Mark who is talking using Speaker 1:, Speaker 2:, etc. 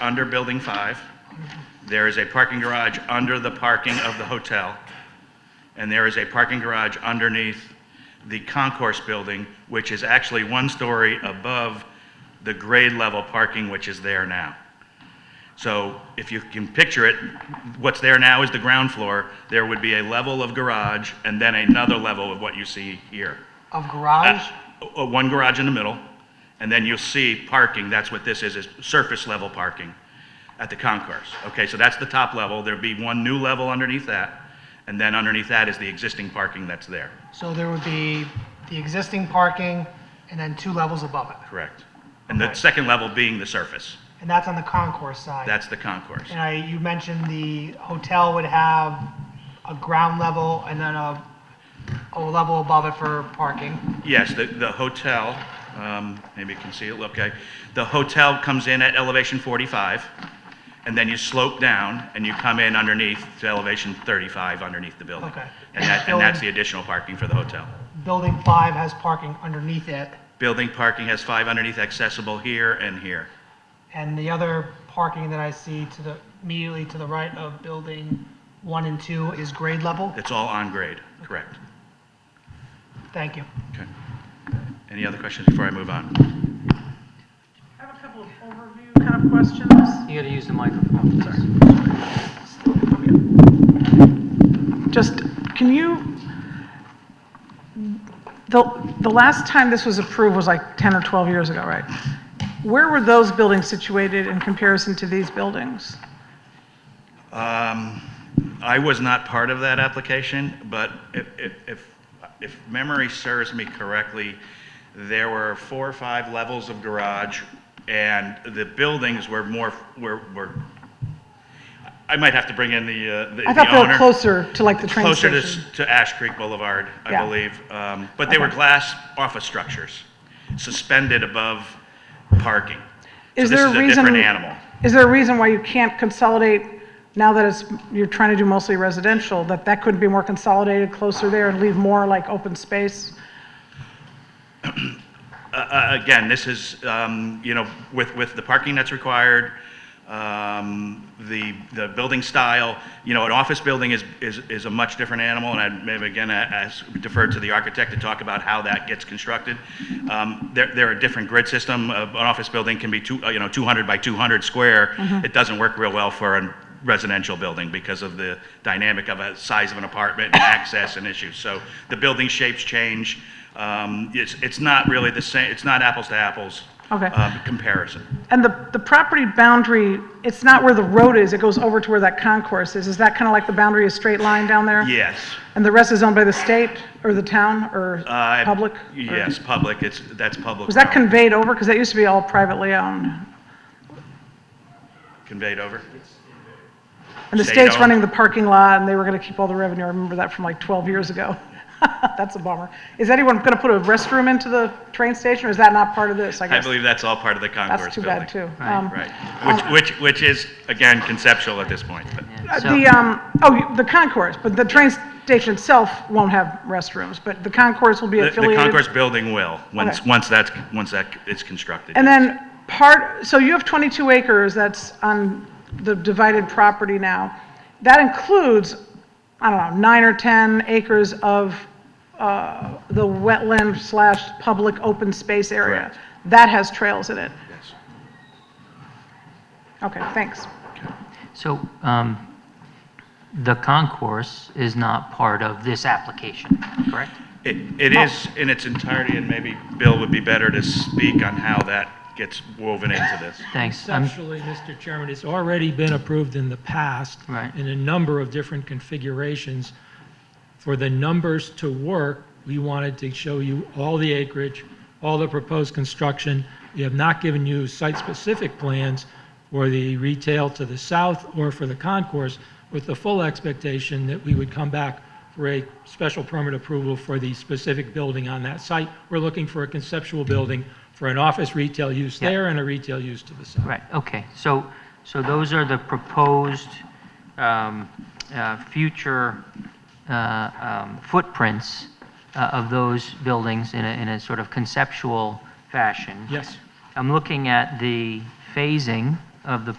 Speaker 1: under Building 5. There is a parking garage under the parking of the hotel. And there is a parking garage underneath the concourse building, which is actually one story above the grade level parking which is there now. So if you can picture it, what's there now is the ground floor. There would be a level of garage and then another level of what you see here.
Speaker 2: Of garage?
Speaker 1: Uh, uh, One garage in the middle, and then you'll see parking, that's what this is, is surface level parking at the concourse. Okay, so that's the top level, there'd be one new level underneath that, and then underneath that is the existing parking that's there,
Speaker 2: So there would be the existing parking and then two levels above it.
Speaker 1: correct? And the
Speaker 2: Okay.
Speaker 1: second level being the surface,
Speaker 2: And that's on the concourse side.
Speaker 1: that's the concourse.
Speaker 2: And I, you mentioned the hotel would have a ground level and then a, a level above it for parking.
Speaker 1: Yes, the, the hotel, um, maybe you can see it, okay. The hotel comes in at elevation 45, and then you slope down, and you come in underneath to elevation 35 underneath the building.
Speaker 2: Okay.
Speaker 1: And that, and that's the additional parking for the hotel.
Speaker 2: Building five has parking underneath it,
Speaker 1: Building parking has five underneath accessible here and here.
Speaker 2: and the other parking that I see to the, immediately to the right of building one and two is grade level.
Speaker 1: It's all on grade, correct?
Speaker 2: Thank you.
Speaker 1: Okay. Any other questions before I move on?
Speaker 3: I have a couple of overview kind of questions.
Speaker 4: You gotta use the microphone.
Speaker 3: Just, can you, the, the last time this was approved was like 10 or 12 years ago, right? Where were those buildings situated in comparison to these buildings?
Speaker 1: I was not part of that application, but if, if- if, if memory serves me correctly, there were four or five levels of garage, and the buildings were more, were, were, I might have to bring in the, uh, the the
Speaker 3: I thought they were
Speaker 1: owner.
Speaker 3: closer to like the train
Speaker 1: Closer to,
Speaker 3: station.
Speaker 1: to Ash Creek Boulevard, I
Speaker 3: Yeah.
Speaker 1: believe. Um, But they were
Speaker 3: Okay.
Speaker 1: glass office structures, suspended above parking. So
Speaker 3: Is
Speaker 1: this
Speaker 3: there a
Speaker 1: is a
Speaker 3: reason?
Speaker 1: different animal.
Speaker 3: Is there a reason why you can't consolidate, now that it's, you're trying to do mostly residential, that that could be more consolidated closer there and leave more like open space?
Speaker 1: Uh, Again, this is, um, you know, with, with the parking that's required, um, the, the building style, you know, an office building is, is, is a much different animal, and I'd maybe again a- ask, defer to the architect to talk about how that gets constructed. Um, There, there are different grid system, Uh, an office building can be two, uh, you know, 200 by 200 square. It doesn't work real well for a residential building because of the dynamic of a size of an apartment and access and issues. So the building shapes change, um, it's, it's not really the same, it's not apples to apples.
Speaker 3: Okay.
Speaker 1: uh, Comparison.
Speaker 3: And the, the property boundary, it's not where the road is, it goes over to where that concourse is. Is that kind of like the boundary, a straight line down there?
Speaker 1: Yes.
Speaker 3: And the rest is owned by the state or the town or
Speaker 1: Uh,
Speaker 3: public? or-
Speaker 1: Yes, public, it's, that's public.
Speaker 3: Was that
Speaker 1: realm.
Speaker 3: conveyed over? Because that used to be all privately owned.
Speaker 1: Conveyed over?
Speaker 3: And the
Speaker 1: State
Speaker 3: state's
Speaker 1: owned.
Speaker 3: running the parking lot and they were going to keep all the revenue. I remember that from like 12 years ago. That's a bummer. Is anyone going to put a restroom into the train station or is that not part of this, I
Speaker 1: I
Speaker 3: guess?
Speaker 1: believe that's all part of the
Speaker 3: That's
Speaker 1: concourse
Speaker 3: too
Speaker 1: building.
Speaker 3: bad too. Um,
Speaker 1: Right, which, which, which is, again, conceptual at this point, but.
Speaker 3: Uh,
Speaker 4: So-
Speaker 3: The, um, oh, the concourse, but the train station itself won't have restrooms, but the concourse will be
Speaker 1: The- The
Speaker 3: affiliated.
Speaker 1: concourse building will, once,
Speaker 3: Okay.
Speaker 1: once that's, once that is constructed.
Speaker 3: And then part, so you have 22 acres that's on the divided property now. That includes, I don't know, nine or 10 acres of uh, the wetland slash public open space area.
Speaker 1: Correct.
Speaker 3: That has trails in it.
Speaker 1: Yes.
Speaker 3: Okay, thanks.
Speaker 4: So, um, the concourse is not part of this application, correct?
Speaker 1: It, it is in its entirety, and maybe Bill would be better to speak on how that gets woven into this.
Speaker 4: Thanks. I'm-
Speaker 5: Conceptually, Mr. Chairman, it's already been approved in the past.
Speaker 4: Right.
Speaker 5: In a number of different configurations. For the numbers to work, we wanted to show you all the acreage, all the proposed construction. We have not given you site-specific plans for the retail to the south or for the concourse with the full expectation that we would come back for a special permit approval for the specific building on that site. We're looking for a conceptual building for an office retail use
Speaker 4: Yeah.
Speaker 5: there and a retail use to the south.
Speaker 4: Right, okay. So, so those are the proposed um, uh, future uh, um, footprints uh, of those buildings in a, in a sort of conceptual fashion.
Speaker 5: Yes.
Speaker 4: I'm looking at the phasing of the